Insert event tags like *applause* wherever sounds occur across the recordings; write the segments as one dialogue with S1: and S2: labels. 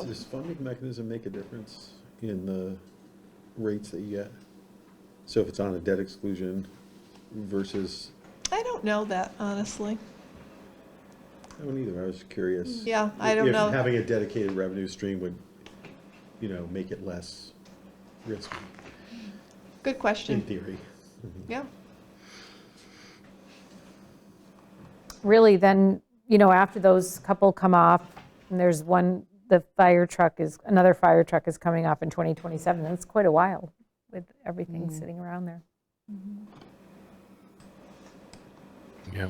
S1: Oh.
S2: Does funding mechanism make a difference in the rates that you get? So if it's on a debt exclusion versus,
S1: I don't know that, honestly.
S2: I don't either, I was curious.
S1: Yeah, I don't
S2: If
S1: know.
S2: Having a dedicated revenue stream would, you know, make it less risky,
S1: Good
S2: in
S1: question.
S2: theory.
S1: Yeah.
S3: really then, you know, after those couple come off, and there's one, the fire truck is, another fire truck is coming off in 2027, that's quite a while with everything sitting around there.
S4: Yeah.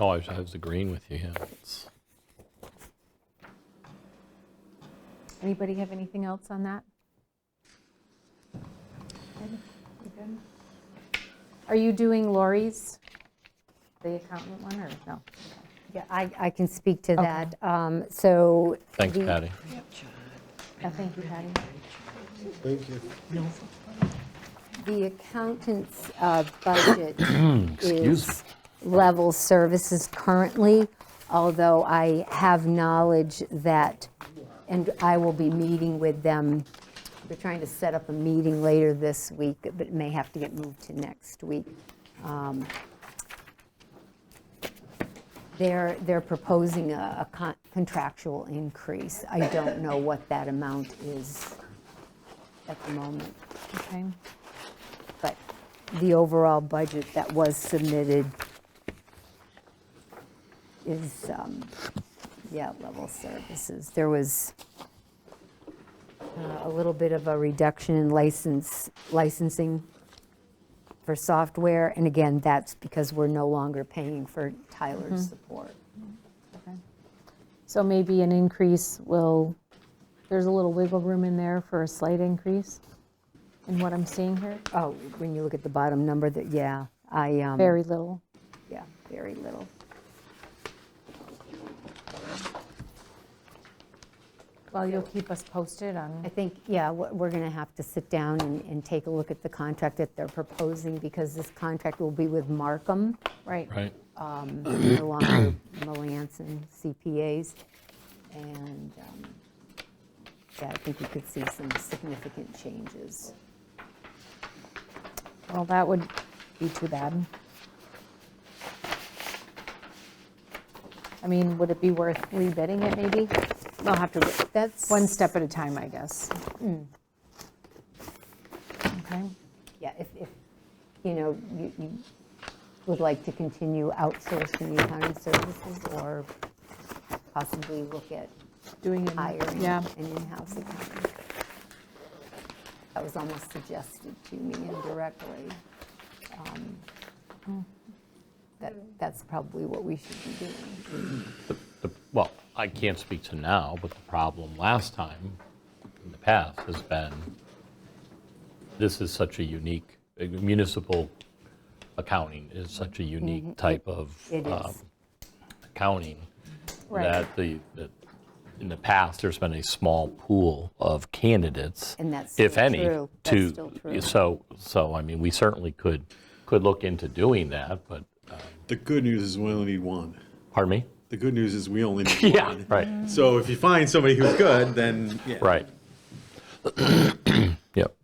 S4: Oh, I was, I was agreeing with you, yeah. It's-
S3: Anybody have anything else on that? Are you doing Lori's, the accountant one, or no?
S5: Yeah, I, I can speak to that. Um, So.
S4: Thanks,
S5: the-
S4: Patty.
S3: No, thank you, Patty.
S2: Thank you.
S5: The accountant's uh, budget
S4: Excuse
S5: is level services currently, although I have knowledge that, and I will be meeting with them. We're trying to set up a meeting later this week, but it may have to get moved to next week. Um, They're, they're proposing a a con- contractual increase. I don't know what that amount is at the moment
S3: Okay.
S5: but the overall budget that was submitted is, um, yeah, level services. There was uh, a little bit of a reduction in license, licensing for software, and again, that's because we're no longer paying for Tyler's support.
S3: So maybe an increase will, there's a little wiggle room in there for a slight increase in what I'm seeing here?
S5: Oh, when you look at the bottom number, that, yeah, I, um,
S3: Very little.
S5: yeah, very little.
S3: Well, you'll keep us posted on.
S5: I think, yeah, we're we're going to have to sit down and, and take a look at the contract that they're proposing, because this contract will be with Markham,
S3: Right.
S4: Right?
S5: no longer Melanson CPAs. And, um, yeah, I think we could see some significant changes.
S3: Well, that would be too bad. I mean, would it be worth rebidding it maybe? I'll have to, Hmm.
S5: That's.
S3: one step at a time, I guess. Okay,
S5: Yeah, if, if, you know, you, you would like to continue outsourcing the accounting services, or possibly look at
S3: doing it.
S5: hiring
S3: Yeah,
S5: an in-house accountant. That was almost suggested to me indirectly. um, That, that's probably what we should be doing.
S4: The- Well, I can't speak to now, but the problem last time, in the past, has been, this is such a unique, uh, municipal accounting is such a unique type of
S5: Mm-hmm. It is.
S4: um, accounting.
S3: right.
S4: that the, that in the past, there's been a small pool of candidates.
S5: And that's
S4: if
S5: still
S4: any,
S5: true. That's
S4: to-
S5: still true.
S4: So, so, I mean, we certainly could, could look into doing that, but, uh,
S2: The good news is we only need one.
S4: pardon me?
S2: The good news is we only need
S4: *laughs* Yeah, right,
S2: So if you find somebody who's good, then, yeah.
S4: right. *clears throat* Yep.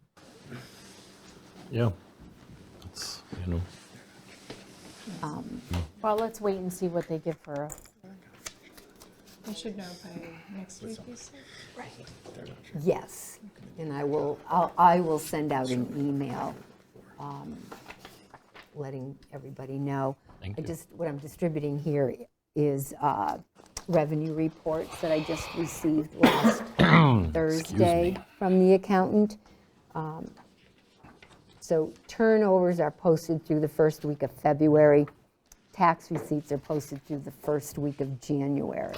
S4: Yeah. It's, you know,
S3: Well, let's wait and see what they give for, a-
S1: We should know by next week, you said?
S5: Yes, and I will, I'll- I will send out an email um, letting everybody know.
S4: Thank
S5: I
S4: you.
S5: just, what I'm distributing here is uh, revenue reports that I just received
S4: *clears throat*
S5: last Thursday from the accountant. Um, So turnovers are posted through the first week of February. Tax receipts are posted through the first week of January.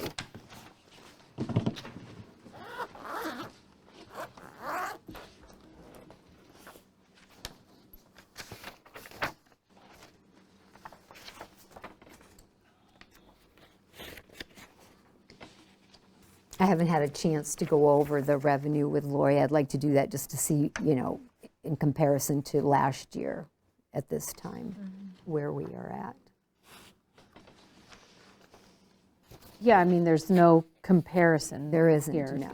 S5: I haven't had a chance to go over the revenue with Lori. I'd like to do that just to see, you know, in comparison to last year at this time, where we are at. Yeah, I mean, there's no comparison
S3: There isn't,
S5: here.
S3: no.